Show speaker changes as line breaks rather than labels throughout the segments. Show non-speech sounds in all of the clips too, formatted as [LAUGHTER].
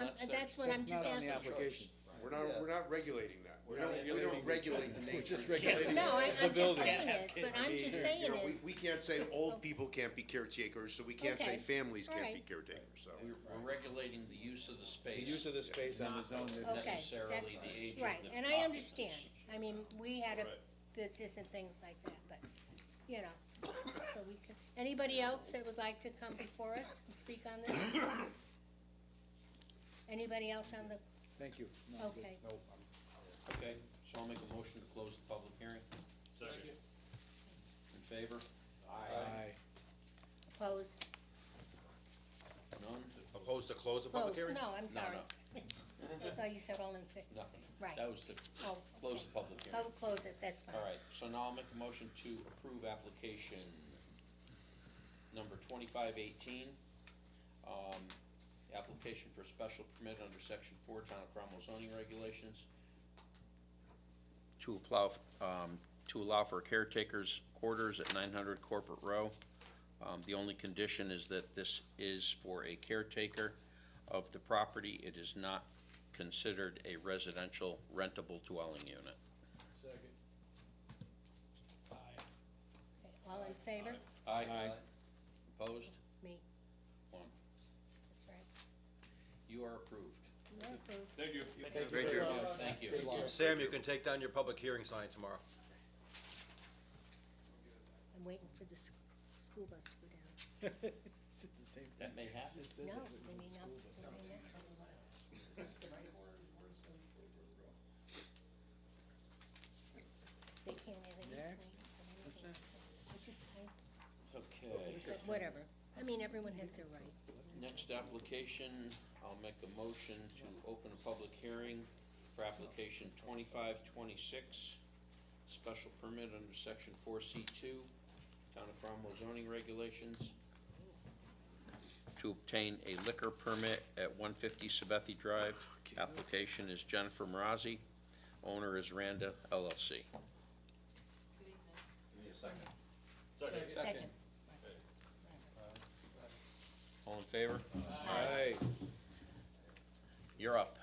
Um, uh, that's what I'm
That's
just
not on the
asking.
application.
We're not, we're not regulating that, we
We're
don't,
not
we don't
regulating
regulate the nature.
We're just regulating
No, I,
the
I'm just
building.
saying it, but I'm just saying
You know, we,
is,
we can't say old people can't be caretakers, so we can't
Okay.
say families can't be
Alright.
caretakers, so.
We're, we're regulating the use of the space.
The use of the space on the zone that-
Okay.
Necessarily
that's-
the age of the.
right, and I
occupants.
understand, I mean, we had a
Right.
business and things like that, but, you know, so we could, anybody else that would like to come before us and speak on this? Anybody else on the,
thank you. No, I'm good.
okay,
Okay, so I'll make a motion to close the public hearing.
Second.
In favor?
Aye.
opposed,
None?
Opposed to close the public
closed,
hearing?
no, I'm sorry,
No,
so you said all in favor,
no, no.
Right.
That was to
oh,
close the public hearing.
I'll close it, that's fine.
All right, so now I'll make a motion to approve application number twenty-five eighteen. Um, application for special permit under section four Town of Cromwell zoning regulations to allow, um, to allow for caretaker's quarters at nine hundred Corporate Row. Um, the only condition is that this is for a caretaker of the property. It is not considered a residential rentable dwelling unit.
Okay, All in favor?
Aye. Opposed?
Me,
One.
that's right,
You are approved.
you're approved,
Thank you.
Thank you.
Thank you.
Sam, you can take down your public hearing sign tomorrow.
I'm waiting for the sc- school bus to go down,
It's the same thing.
That may happen.
Just said
no,
that with
I
the
mean, no,
school bus.
I mean, not- They can't have any
Next.
swings or anything. It's just kind-
Okay,
but Whatever, I mean, everyone has their right.
next application, I'll make a motion to open a public hearing for application twenty-five twenty-six. Special permit under section four C two, Town of Cromwell zoning regulations. To obtain a liquor permit at one fifty Sabethy Drive. Application is Jennifer Marazzi, owner is Randa LLC.
Second.
Second.
All in favor?
Aye.
You're up.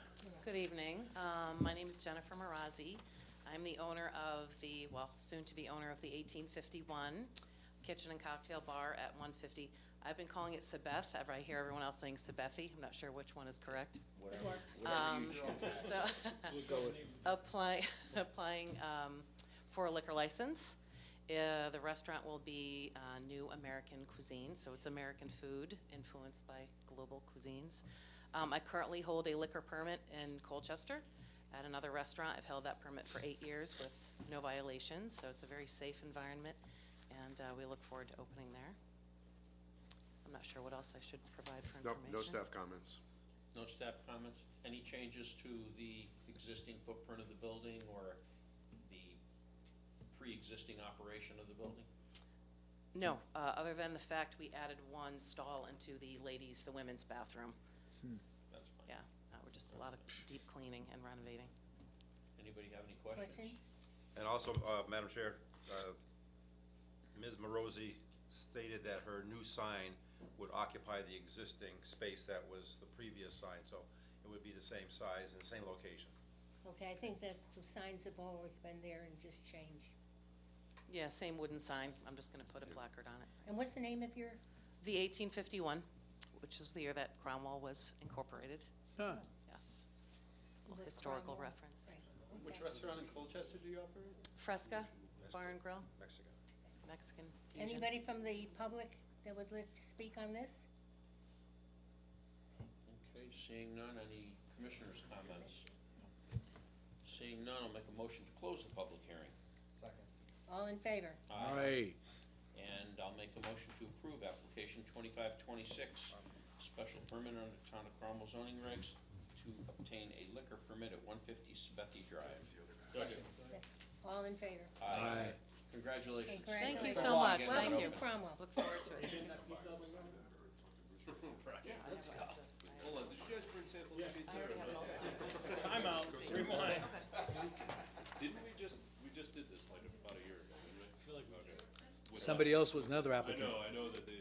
Good evening. Um, My name is Jennifer Marazzi. I'm the owner of the, well, soon-to-be owner of the 1851 Kitchen and Cocktail Bar at 150. I've been calling it Sabeth, ever I hear everyone else saying Sabethi. I'm not sure which one is correct.
It works.
Um, So, apply, [LAUGHS] applying um, for a liquor license. Uh, The restaurant will be uh, New American Cuisine, so it's American food influenced by global cuisines. Um, I currently hold a liquor permit in Colchester at another restaurant. I've held that permit for eight years with no violations, so it's a very safe environment, and uh, we look forward to opening there. I'm not sure what else I should provide for
No,
information.
no staff comments.
No staff comments? Any changes to the existing footprint of the building or the pre-existing operation of the building?
No, uh, other than the fact we added one stall into the ladies, the women's bathroom.
That's fine.
Yeah, uh, we're just a lot of deep cleaning and renovating.
Anybody have any
Question?
questions?
And also, uh, Madam Chair, uh, Ms. Marosi stated that her new sign would occupy the existing space that was the previous sign, so it would be the same size and same location.
Okay, I think that the signs have always been there and just changed.
Yeah, same wooden sign, I'm just gonna put a placard on it.
And what's the name of your,
The eighteen fifty-one, which is the year that Cromwell was incorporated,
Huh.
yes.
Was
Oh, Historical
Cromwell-
reference.
right,
Which
okay.
restaurant in Colchester do you operate?
Fresca Bar and Grill,
Mexican.
Mexican fusion.
Anybody from the public that would like to speak on this?
Okay, seeing none, any commissioners' comments? Seeing none, I'll make a motion to close the public hearing.
All in favor?
Aye.
And I'll make a motion to approve application twenty-five twenty-six, special permit under Town of Cromwell zoning regs to obtain a liquor permit at one fifty Sabethy Drive.
Second.
All in favor?
Aye.
Congratulations.
Thank you
so much. Thank
Welcome to
you.
Cromwell.
Look forward to it.
Let's go. Hold on, did you guys bring samples of pizza?
I already have it all signed.
Time out, rewind. Didn't we just, we just did this like about a year ago, didn't we? I feel like.
Somebody else was another
I
applicant.
know, I know that they